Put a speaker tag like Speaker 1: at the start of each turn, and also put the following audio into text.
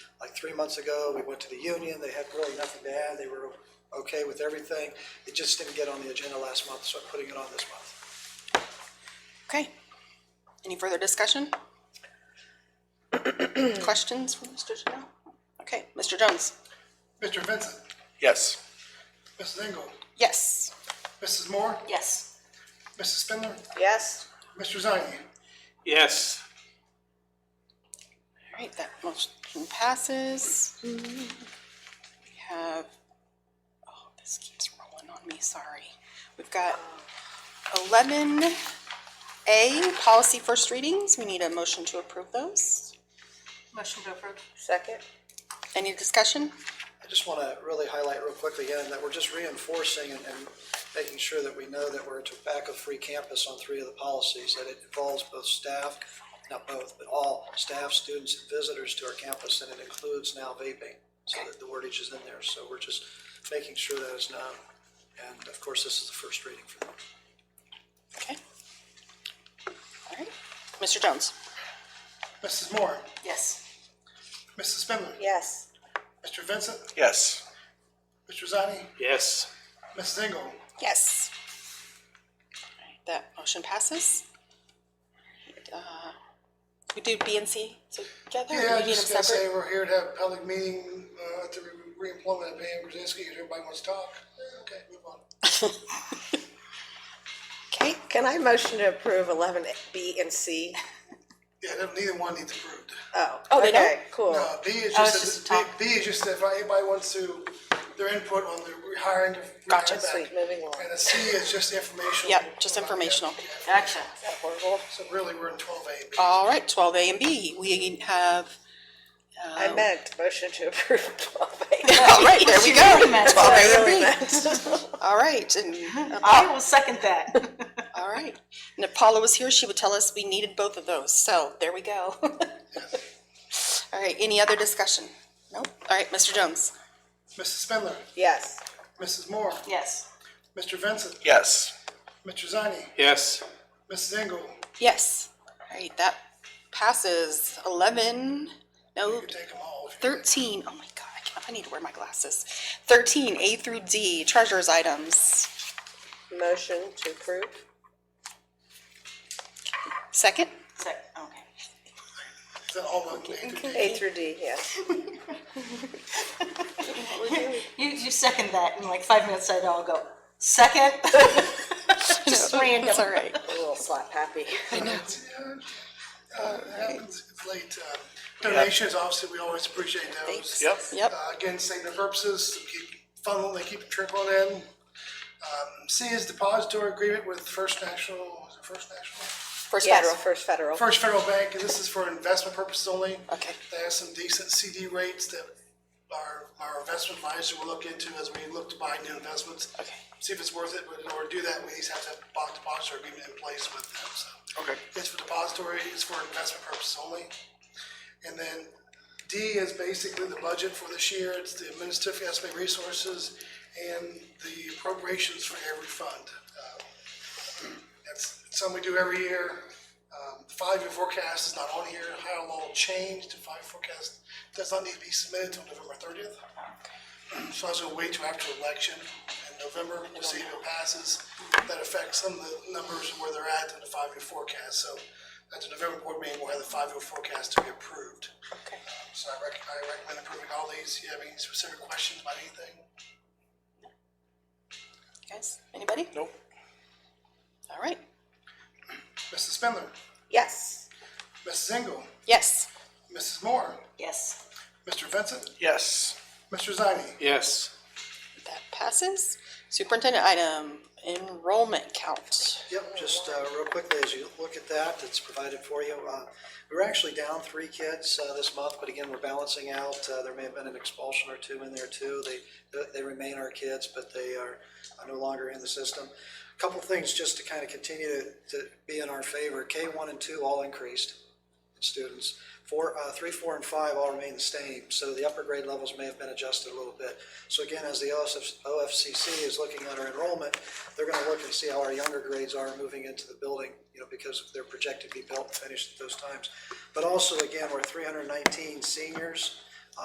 Speaker 1: like three months ago, we went to the union, they had really nothing to add, they were okay with everything. It just didn't get on the agenda last month, so I'm putting it on this month.
Speaker 2: Okay. Any further discussion? Questions for Mr. Janelle? Okay, Mr. Jones?
Speaker 3: Mr. Vincent,
Speaker 4: Yes.
Speaker 3: Mrs. Engel,
Speaker 2: Yes.
Speaker 3: Mrs. Moore,
Speaker 2: Yes.
Speaker 3: Mrs. Spindler,
Speaker 2: Yes.
Speaker 3: Mr. Zani.
Speaker 4: Yes.
Speaker 2: All right, that motion passes. We have, oh, this keeps rolling on me, sorry. We've got eleven A, policy first readings. We need a motion to approve those.
Speaker 5: Motion to approve.
Speaker 2: Second. Any discussion?
Speaker 1: I just want to really highlight real quickly again that we're just reinforcing and, and making sure that we know that we're a tobacco-free campus on three of the policies, that it involves both staff, not both, but all staff, students, and visitors to our campus, and it includes now vaping. So that the wordage is in there, so we're just making sure that is known. And of course, this is the first reading for them.
Speaker 2: Okay. All right, Mr. Jones?
Speaker 3: Mrs. Moore,
Speaker 2: Yes.
Speaker 3: Mrs. Spindler,
Speaker 2: Yes.
Speaker 3: Mr. Vincent,
Speaker 4: Yes.
Speaker 3: Mr. Zani,
Speaker 4: Yes.
Speaker 3: Mrs. Engel,
Speaker 2: Yes. All right, That motion passes. Uh, We do B and C together? or
Speaker 3: Yeah,
Speaker 2: we
Speaker 3: I
Speaker 2: need
Speaker 3: just
Speaker 2: them
Speaker 3: gonna say
Speaker 2: separate?
Speaker 3: we're here to have a public meeting, uh, to re- reemployment of Pam Krasinski, if everybody wants to talk. Yeah, Okay, move on.
Speaker 2: Okay,
Speaker 6: Can I motion to approve eleven B and C?
Speaker 3: Yeah, no- neither one needs approved.
Speaker 6: Oh,
Speaker 2: Oh, they don't?
Speaker 6: okay, cool.
Speaker 3: No, Uh, B is
Speaker 5: Oh, it's
Speaker 3: just,
Speaker 5: just
Speaker 3: a-
Speaker 5: talk.
Speaker 3: B, B is just if anybody wants to, their input on the hiring.
Speaker 2: Gotcha.
Speaker 6: Sweet, moving on.
Speaker 3: And a C is just informational.
Speaker 2: yep, just informational.
Speaker 5: Action.
Speaker 6: Horrible.
Speaker 3: So really, we're in twelve A.
Speaker 2: All right, twelve A and B, we have,
Speaker 6: I meant motion to approve twelve A.
Speaker 2: all right, there we go.
Speaker 5: meant that.
Speaker 2: Twelve A and B. All right, and,
Speaker 5: I will second that.
Speaker 2: all right. And if Paula was here, she would tell us we needed both of those, so there we go. All right, any other discussion? Nope. All right, Mr. Jones?
Speaker 3: Mrs. Spindler,
Speaker 6: Yes,
Speaker 3: Mrs. Moore,
Speaker 5: Yes.
Speaker 3: Mr. Vincent,
Speaker 4: Yes.
Speaker 3: Mr. Zani,
Speaker 4: Yes.
Speaker 3: Mrs. Engel,
Speaker 2: Yes. All right, that passes eleven, no,
Speaker 3: you take them all. if you-
Speaker 2: thirteen. Oh my god, I can't- I need to wear my glasses. Thirteen, A through D, treasurer's items.
Speaker 6: motion to approve.
Speaker 2: Second?
Speaker 5: Second, okay.
Speaker 3: Is that all of them? A through D?
Speaker 6: A through D, yes.
Speaker 5: You, you second that, and like five minutes later, I'll go, second? Just
Speaker 2: It's all
Speaker 5: random.
Speaker 2: right.
Speaker 6: A little slap happy.
Speaker 3: Uh, it happens, it's late. uh, Donations, obviously, we always appreciate those.
Speaker 4: Yep.
Speaker 2: Yep,
Speaker 3: Uh, Again, same to purposes, keep funnel, they keep trickling in. Um, C is depository agreement with First National, is it First National?
Speaker 2: first
Speaker 6: Yes,
Speaker 2: federal.
Speaker 6: First Federal.
Speaker 3: First Federal Bank, and this is for investment purposes only.
Speaker 2: Okay.
Speaker 3: They have some decent CD rates that our, our investment advisor will look into as we look to buy new investments.
Speaker 2: Okay.
Speaker 3: See if it's worth it, but in order to do that, we just have to have a depository agreement in place with them, so.
Speaker 4: Okay.
Speaker 3: It's for depository, it's for investment purposes only. And then D is basically the budget for this year, it's the administrative estimate resources and the appropriations for every fund. Uh, That's something we do every year. Um, the Five-year forecast is not on here, higher law changed, the five-year forecast does not need to be submitted until November thirtieth. So I was gonna wait till after the election in November, to see if it passes. That affects some of the numbers and where they're at in the five-year forecast, so at the November board meeting, we'll have the five-year forecast to be approved.
Speaker 2: Okay.
Speaker 3: So I rec- I recommend approving all these. You have any specific questions about anything?
Speaker 2: Guys, anybody?
Speaker 4: Nope.
Speaker 2: All right,
Speaker 3: Mrs. Spindler,
Speaker 6: Yes,
Speaker 3: Mrs. Engel,
Speaker 2: yes.
Speaker 3: Mrs. Moore,
Speaker 5: Yes.
Speaker 3: Mr. Vincent,
Speaker 4: Yes.
Speaker 3: Mr. Zani.
Speaker 4: Yes.
Speaker 2: That passes. Superintendent item, enrollment count.
Speaker 1: Yep, just uh, real quickly, as you look at that, it's provided for you. Uh, We were actually down three kids uh, this month, but again, we're balancing out. Uh, There may have been an expulsion or two in there too. They, they remain our kids, but they are no longer in the system. A Couple things just to kind of continue to- to be in our favor. K one and two all increased students. Four, uh, three, four, and five all remain the same, so the upper grade levels may have been adjusted a little bit. So again, as the OSF OFCC is looking at our enrollment, they're gonna look and see how our younger grades are moving into the building, you know, because they're projected to be built and finished at those times. But also, again, we're three hundred and nineteen seniors